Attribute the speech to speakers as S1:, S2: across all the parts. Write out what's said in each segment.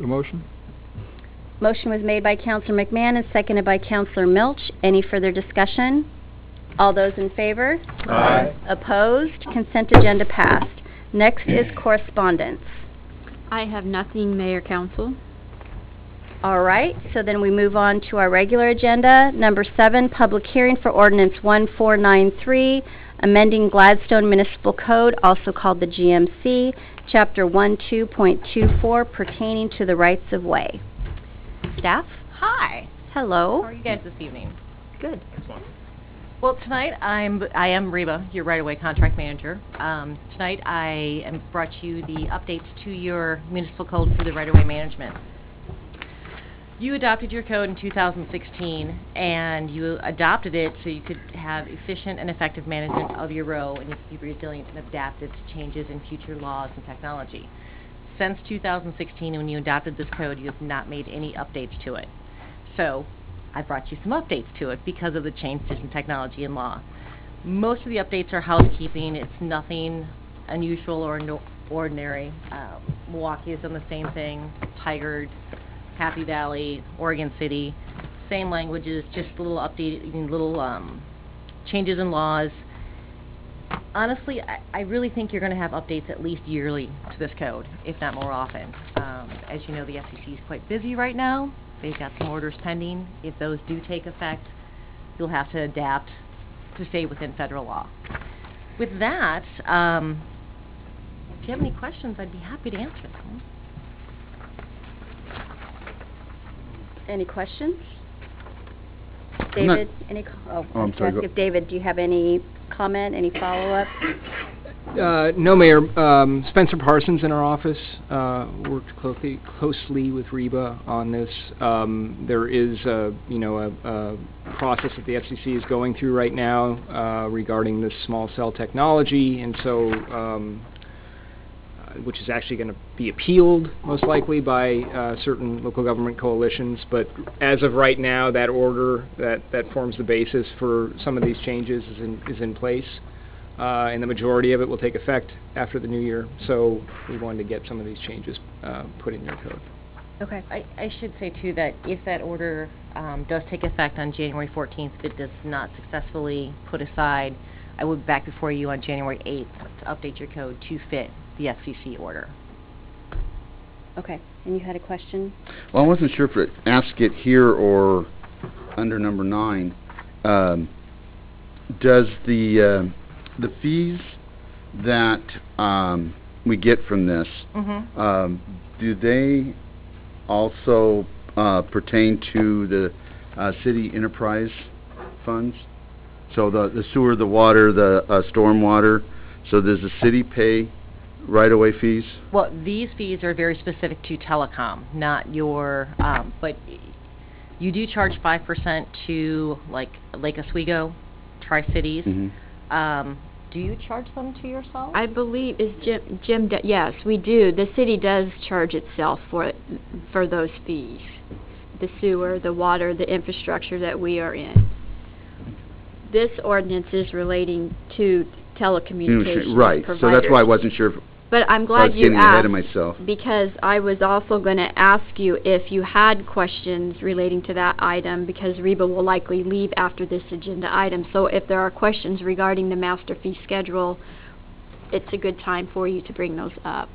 S1: The motion?
S2: Motion was made by Counselor McMahon and seconded by Counselor Milch. Any further discussion? All those in favor?
S1: Aye.
S2: Opposed? Consent agenda passed. Next is correspondence.
S3: I have nothing, Mayor Council.
S2: All right, so then we move on to our regular agenda. Number seven, public hearing for ordinance 1493, amending Gladstone Municipal Code, also called the GMC, Chapter 12.24 pertaining to the rights of way. Staff?
S4: Hi. How
S2: Hello?
S4: are you guys this evening?
S2: Oh. Good.
S4: Well, tonight I'm I am Reba, your right-of-way contract manager. Um, tonight I am brought you the updates to your municipal code for the right-of-way management. You adopted your code in 2016, and you adopted it so you could have efficient and effective management of your row, and you could be resilient and adaptive to changes in future laws and technology. Since 2016, when you adopted this code, you have not made any updates to it. So, I brought you some updates to it because of the changes in technology and law. Most of the updates are housekeeping. It's nothing unusual or no- ordinary. Uh, Milwaukee has done the same thing. Tigard, Happy Valley, Oregon City, same languages, just little updated, little um, changes in laws. Honestly, I, I really think you're going to have updates at least yearly to this code, if not more often. Um, as you know, the FCC is quite busy right now. They've got some orders pending. If those do take effect, you'll have to adapt to stay within federal law. With that, um, if you have any questions, I'd be happy to answer them.
S2: Any questions?
S5: I'm not-
S2: David, any, co- oh,
S5: Oh,
S2: I
S5: I'm
S2: was gonna
S5: sorry,
S2: ask
S5: go-
S2: if David, do you have any comment, any follow-up?
S1: Uh, no, Mayor, um, Spencer Parsons in our office, uh, worked closely, closely with Reba on this. Um, there is a, you know, a, a process that the FCC is going through right now, uh, regarding this small cell technology, and so, um, uh, which is actually going to be appealed, most likely, by uh, certain local government coalitions. But as of right now, that order that, that forms the basis for some of these changes is in, is in place, uh, and the majority of it will take effect after the new year. So we wanted to get some of these changes uh, put in your code.
S2: Okay.
S4: I, I should say too that if that order, um, does take effect on January fourteenth, if it does not successfully put aside, I will be back before you on January eighth to update your code to fit the FCC order.
S2: Okay, and you had a question?
S5: Well, I wasn't sure if it asked it here or under number nine. Um, Does the, uh, the fees that um, we get from this,
S4: Mm-hmm.
S5: um, do they also uh, pertain to the uh, city enterprise funds? So the the sewer, the water, the uh, stormwater, so does the city pay right-of-way fees?
S4: Well, these fees are very specific to telecom, not your, um, but you do charge five percent to like Lake Oswego, Tri-Cities.
S5: Mhm.
S4: Um, do you charge them to yourself?
S3: I believe, is Jim, Jim, do- yes, we do. The city does charge itself for, it- for those fees. The sewer, the water, the infrastructure that we are in. This ordinance is relating to telecommunications
S5: Right, so that's why I
S3: providers.
S5: wasn't sure if
S3: But I'm
S5: I was
S3: glad you asked.
S5: getting ahead of myself.
S3: Because I was also going to ask you if you had questions relating to that item, because Reba will likely leave after this agenda item. So if there are questions regarding the master fee schedule, it's a good time for you to bring those up.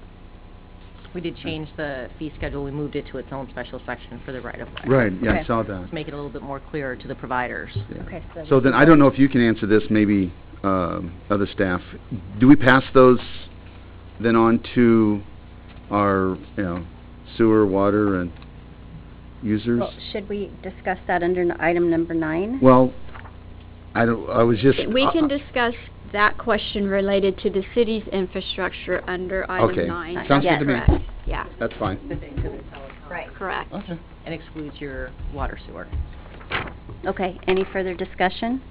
S4: We did change the fee schedule, we moved it to its own special section for the right-of-way.
S5: Right, yeah,
S2: Okay.
S5: I saw that.
S4: To make it a little bit more clear to the providers.
S5: Yeah.
S2: Okay, so-
S5: So then, I don't know if you can answer this, maybe um, other staff. Do we pass those then on to our, you know, sewer, water, and users?
S2: Well, should we discuss that under n- item number nine?
S5: Well, I don't, I was just...
S3: We
S5: uh,
S3: can discuss that question related to the city's infrastructure under
S5: Okay.
S3: item nine.
S5: Sounds
S2: good to me.
S3: Correct. Yeah,
S5: That's fine.
S2: Right.
S3: correct.
S5: Okay.
S4: And excludes your water sewer.
S2: Okay, any further discussion?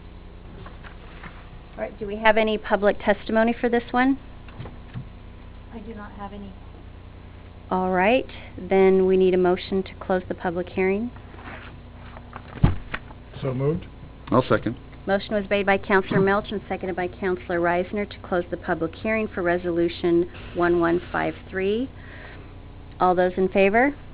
S2: All right, do we have any public testimony for this one?
S6: I do not have any.
S2: All right, then we need a motion to close the public hearing.
S7: So moved?
S5: I'll second.
S2: Motion was made by Counselor Melch and seconded by Counselor Reisner to close the public hearing for Resolution 1153. All those in favor?